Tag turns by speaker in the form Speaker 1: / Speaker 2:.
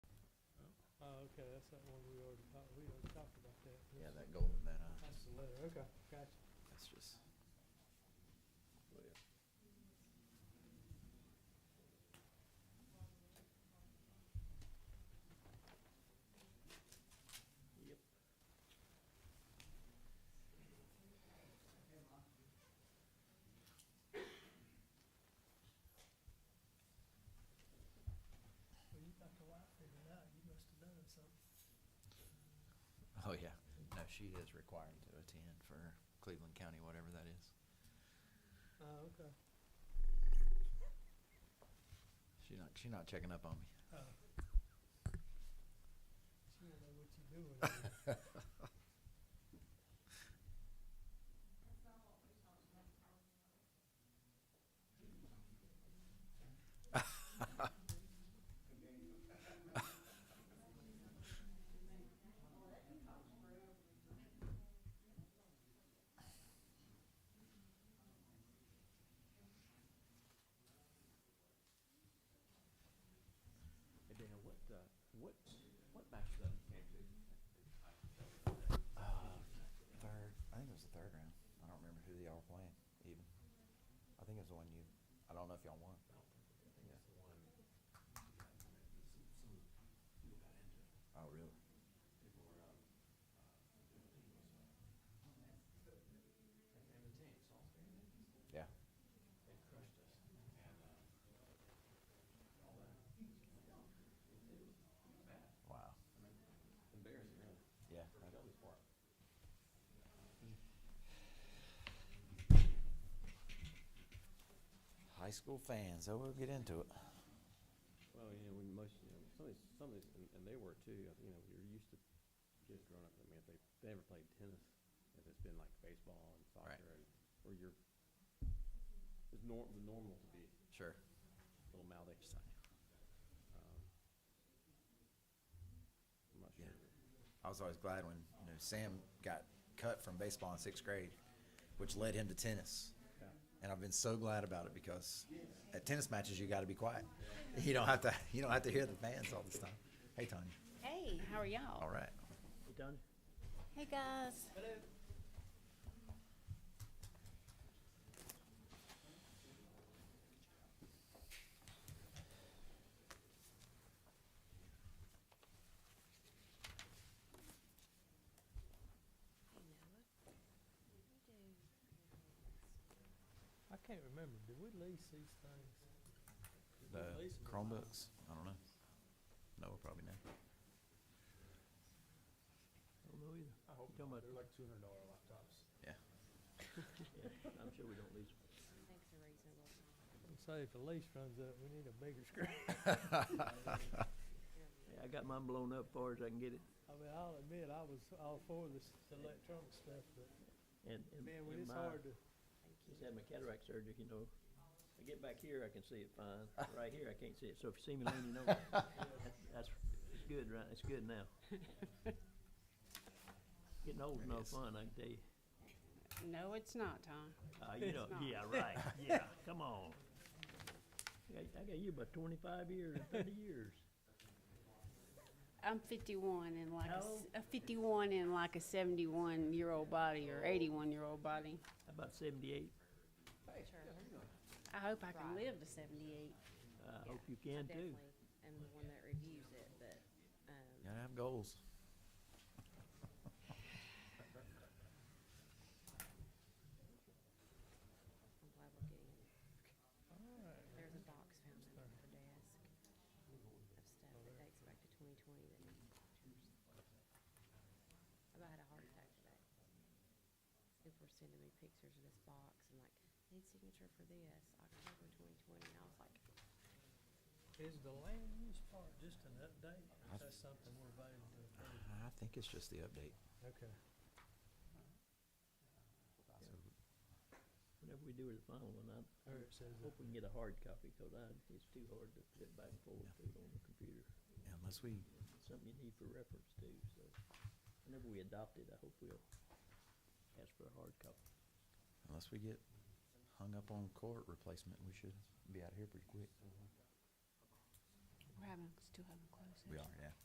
Speaker 1: Oh, Okay, that's that one we already talked, we already talked about that.
Speaker 2: Yeah, that golden, that, uh,
Speaker 1: That's the letter, okay, gotcha.
Speaker 2: that's just. Yep.
Speaker 1: Well, you got the wife figured out, you must have done something.
Speaker 2: Oh, yeah. No, she is required to attend for Cleveland County, whatever that is.
Speaker 1: Oh, okay.
Speaker 2: She not, she not checking up on me.
Speaker 1: Oh. She don't know what you doing.
Speaker 3: Hey Dana, what, uh, what, what match that you came to?
Speaker 2: Uh, third, I think it was the third round. I don't remember who they all were playing even. I think it was the one you, I don't know if y'all won. Yeah. Oh, really? Yeah. Wow.
Speaker 3: Embarrassing, really,
Speaker 2: Yeah.
Speaker 3: for Shelby's part.
Speaker 2: High school fans, so we'll get into it.
Speaker 3: Well, you know, when most, you know, some of these, some of these, and, and they were too, you know, you're used to kids growing up, I mean, if they, they never played tennis, if it's been like baseball and
Speaker 2: Right.
Speaker 3: soccer and, or you're, it's nor, the normal to be
Speaker 2: Sure.
Speaker 3: a little mouthy. Um, I'm not
Speaker 2: Yeah.
Speaker 3: sure.
Speaker 2: I was always glad when you know Sam got cut from baseball in sixth grade, which led him to tennis.
Speaker 3: Yeah.
Speaker 2: And I've been so glad about it because at tennis matches you got to be quiet. You don't have to. You don't have to hear the fans all this time. Hey Tanya.
Speaker 4: Hey, how are y'all?
Speaker 2: All right.
Speaker 4: Hey, guys.
Speaker 1: I can't remember, did we lease these things? Did we
Speaker 2: The
Speaker 1: lease 'em or not?
Speaker 2: Chromebooks. I don't know. No, we'll probably know.
Speaker 1: I don't know either. I hope not, they're like two hundred dollar laptops.
Speaker 3: I'm sure we don't lose.
Speaker 1: I'm saying if the lease runs up, we need a bigger screen.
Speaker 5: Yeah, I got mine blown up far as I can get it.
Speaker 1: I mean, I'll admit, I was all for this electronic stuff, but
Speaker 5: And, and
Speaker 1: man, when it's
Speaker 5: and my-
Speaker 1: hard to,
Speaker 5: Just had my cataract surgery, you know. I get back here, I can see it fine. Right here, I can't see it. So if you see me leaning over, that's- that's, it's good, right? It's good now. Getting old's no fun, I can tell you.
Speaker 4: No, it's not, Tom.
Speaker 5: Uh, you know,
Speaker 4: It's not.
Speaker 5: yeah, right, yeah, come on. I got- I got you about twenty-five years, thirty years.
Speaker 4: I'm 51 and like a,
Speaker 5: How
Speaker 4: s-
Speaker 5: old?
Speaker 4: a 51 and like a 71 year old body or 81 year old body.
Speaker 5: About seventy-eight.
Speaker 4: I hope I can live to 78.
Speaker 5: I hope you can too.
Speaker 6: Definitely, am the one that reviews it, but, um,
Speaker 2: You gotta have goals.
Speaker 6: I'm glad we're getting it.
Speaker 1: alright,
Speaker 6: There's a box found under her desk of stuff that dates back to twenty twenty that needs pictures. I've had a heart attack today. People were sending me pictures of this box and like, need signature for this, October twenty twenty, and I was like,
Speaker 1: is the land use part just an update, or is that something we're voting to approve?
Speaker 2: I think it's just the update.
Speaker 1: Okay.
Speaker 5: Whenever we do the final one, I'm,
Speaker 1: Or it says
Speaker 5: Hope we can get a hard copy, because I, it's too hard to flip back and forth through on the computer.
Speaker 2: Yeah, unless we
Speaker 5: It's something you need for reference too, so whenever we adopt it, I hope we'll ask for a hard copy.
Speaker 2: unless we get hung up on court replacement, we should be out of here pretty quick.
Speaker 4: We're having, still having close.
Speaker 2: We are,
Speaker 4: session.